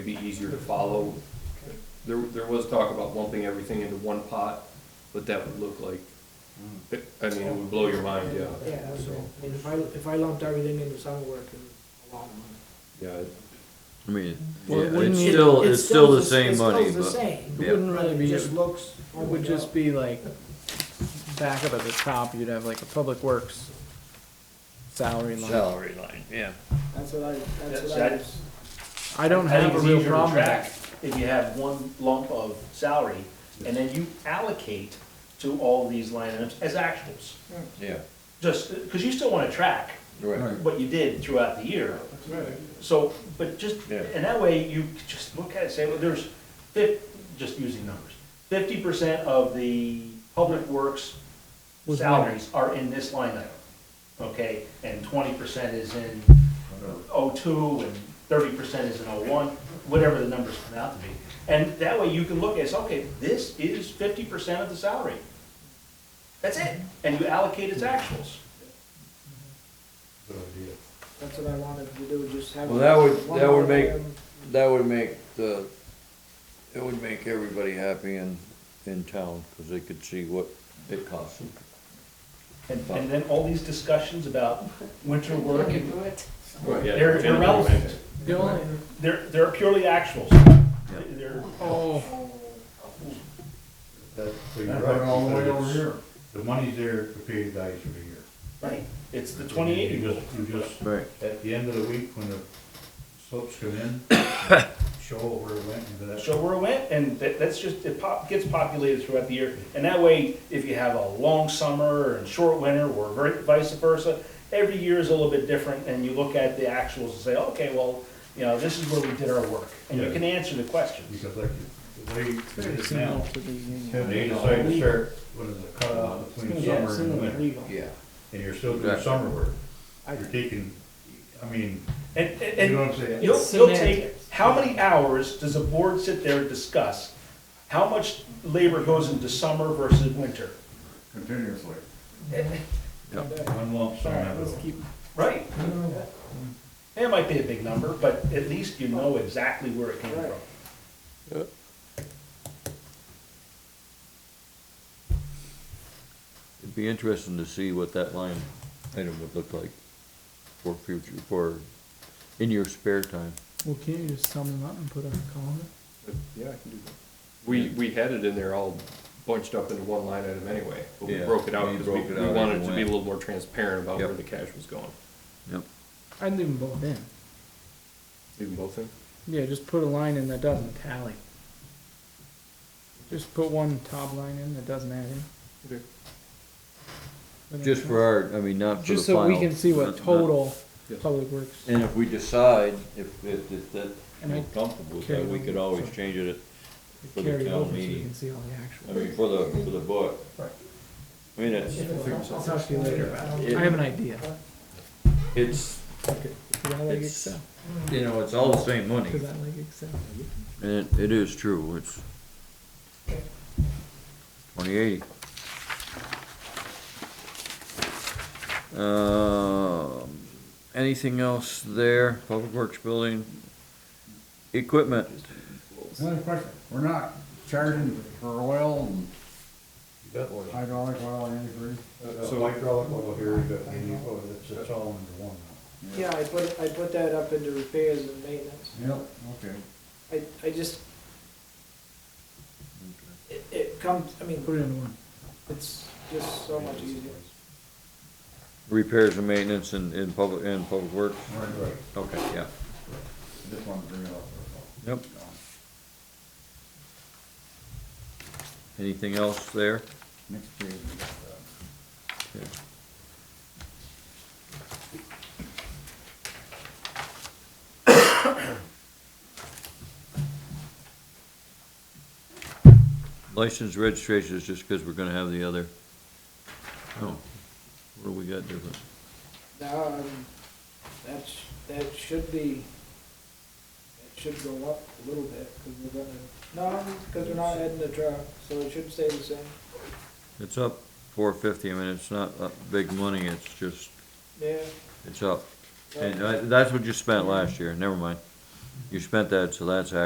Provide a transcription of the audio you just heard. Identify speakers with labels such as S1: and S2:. S1: be easier to follow. There, there was talk about lumping everything into one pot, but that would look like,
S2: Hmm.
S1: I mean, it would blow your mind, yeah.
S3: Yeah, I
S1: So,
S3: mean, if I, if I lumped everything into summer work and a lot of money.
S1: Yeah, it-
S2: I mean,
S4: Well,
S2: yeah,
S4: wouldn't
S2: it's
S4: it-
S2: still, it's still the
S3: s-
S2: same money,
S3: It's still the
S2: but,
S3: same.
S2: yeah.
S4: Wouldn't
S3: But
S4: really
S3: it
S4: be,
S3: just
S4: it
S3: looks.
S4: would just be like, back up at the top, you'd have like a public works salary line.
S5: Salary line, yeah.
S3: That's what I, that's
S6: That's-
S3: what I.
S6: that's-
S4: I don't
S6: I
S4: have
S6: think
S4: a
S6: it's
S4: real
S6: easier to
S4: problem with
S6: track
S4: that.
S6: If you have one lump of salary, and then you allocate to all these line items as actuals.
S3: Hmm.
S5: Yeah,
S6: Just, because you still want to track
S5: right.
S6: what you did throughout the year. So, but just,
S5: Yeah.
S6: and that way you just look at it, say, well, there's fif, just using numbers. Fifty percent of the public works
S4: Was
S6: salaries are in this line item, okay? And twenty percent is in O two, and thirty percent is in O one, whatever the numbers come out to be. And that way you can look at, it, say, okay, this is fifty percent of the salary. That's it, and you allocate its actuals.
S1: good idea.
S3: That's what I wanted to do, just have.
S5: Well, that would-
S3: one
S5: that would
S3: line
S5: make-
S3: item.
S5: That would make the, it would make everybody happy in, in town, cause they could see what it costs them.
S6: And, and then all these discussions about winter work and
S1: Right, yeah,
S6: They're
S1: generally,
S6: irrelevant.
S4: The only,
S6: They're, they're purely actuals. They're,
S4: oh,
S7: So you're right, all the way over here. The money's there to pay the guys for the year.
S6: right, it's the twenty-eight
S7: You
S6: rule.
S7: just, you just,
S2: right,
S7: at the end of the week, when the slips come in, show where it went into that.
S6: Show where it went, and that, that's just, it pop, gets populated throughout the year. And that way, if you have a long summer and short winter, or ver- vice versa, every year is a little bit different, and you look at the actuals and say, okay, well, you know, this is where we did our work. And you
S7: Yeah.
S6: can answer the questions.
S7: Because like, you- the way it
S4: very
S7: is now,
S4: similar to the union.
S7: they decide to start, what is it, cut off Uh, between
S4: Yeah,
S7: summer and
S4: similar to
S7: winter,
S4: legal.
S5: Yeah.
S7: and you're still doing
S2: Exactly.
S7: summer work.
S4: I-
S7: You're taking, I mean,
S6: And, and-
S7: you
S6: and
S7: know what I'm saying?
S6: You'll,
S4: It's
S6: you'll take,
S4: semantics.
S6: how many hours does a board sit there and discuss? How much labor goes into summer versus winter?
S7: Continuously.
S2: Yeah.
S7: One lump sum.
S4: Alright,
S7: of it
S4: let's
S7: all.
S4: keep,
S6: Right. It might be a big number, but at least you know exactly where it came
S3: Right.
S6: from.
S5: It'd be interesting to see what that line item would look like for future, for, in your spare time.
S4: well, can't you just sum them up and put a column?
S1: But, Yeah, I can do that. We, we had it in there all bunched up into one line item anyway, but we
S2: Yeah,
S1: broke it out
S2: we
S1: because we,
S2: broke it
S1: we
S2: out as
S1: wanted
S2: it
S1: it to be a
S2: went.
S1: little more transparent about
S2: Yep.
S1: where the cash was going.
S2: yep,
S4: I'd leave them both in.
S1: Even both in?
S4: Yeah, just put a line in that doesn't tally. Just put one top line in that doesn't add in.
S1: Okay.
S4: That makes
S5: Just for
S4: sense.
S5: our, I mean, not for the final.
S4: Just so we can see
S2: not-
S4: what
S2: not-
S4: total
S1: Yes.
S4: public works.
S5: And if we decide, if, if, if that,
S4: And I-
S5: we're comfortable with that, we could always change it, For the
S4: carry
S5: town
S4: over so we
S5: meeting.
S4: can see all the
S5: I
S4: actual.
S5: mean, for the, for the book. I mean, it's,
S4: I'll talk to you later about it.
S5: Yeah.
S4: I have an idea.
S5: it's,
S4: Cause I like
S5: it's,
S4: Excel,
S5: you know, it's all the same money.
S4: cause I like Excel.
S5: And it- it is true, it's twenty eighty. Um, anything else there, Public Works Building? Equipment,
S8: Another question, we're not charging for oil and
S7: You got oil.
S8: hydraulic oil and antifreeze?
S7: So Uh, hydraulic oil here, you got any oil, oh, it's, it's all under one now.
S3: Yeah, I put, I put that up into repairs and maintenance.
S8: Yep, okay.
S3: I, I just. It, it comes, I mean,
S4: Put it in one.
S3: it's just so much easier.
S5: repairs and maintenance in, in public, in Public Works,
S8: Right, right.
S5: okay, yeah.
S8: I Just wanted to bring it up. that's all.
S5: Yep. Anything else there?
S8: Next page, we got that.
S5: License registration is just because we're gonna have the other. Oh, what do we got different?
S3: Now, um, that's, that should be, it should go up a little bit, cause we're gonna, no, cause we're not adding the truck, so it should stay the same.
S5: It's up four fifty, I mean, it's not uh, big money, it's just,
S3: Yeah.
S5: uh, it's up. And I- that's what you spent last year, never mind. You spent that, so that's